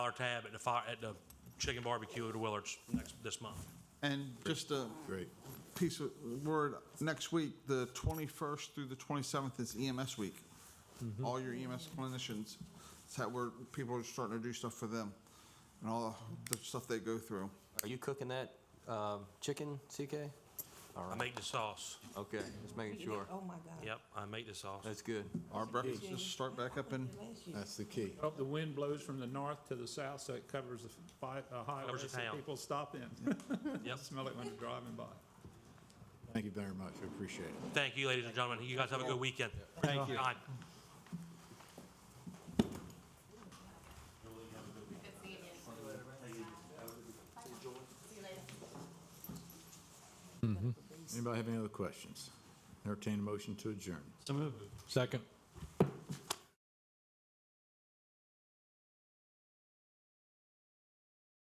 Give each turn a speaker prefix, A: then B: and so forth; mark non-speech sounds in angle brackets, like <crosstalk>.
A: dollar tab at the fire, at the chicken barbecue at Willards next, this month.
B: And just a
C: Great.
B: piece of word, next week, the 21st through the 27th is EMS week. All your EMS clinicians, it's how we're, people are starting to do stuff for them and all the stuff they go through.
D: Are you cooking that um, chicken, CK? All
A: I
D: right,
A: make the sauce.
D: okay, just making
E: You
D: sure.
E: did- Oh, my God.
A: Yep, I make the sauce.
D: That's good.
B: Our breakfasts start back up in,
E: Bless you.
C: That's the key.
F: Hope the wind blows from the north to the south so it covers the fi- uh, highway
A: the
F: so
A: town.
F: people stop in. <laughs>
A: Yep.
F: Smell it when they're driving by.
C: Thank you very much. I appreciate it.
A: Thank you, ladies and gentlemen. You guys have a good weekend. Thank you.
C: Anybody have any other questions? Entertain a motion to adjourn.
G: Second.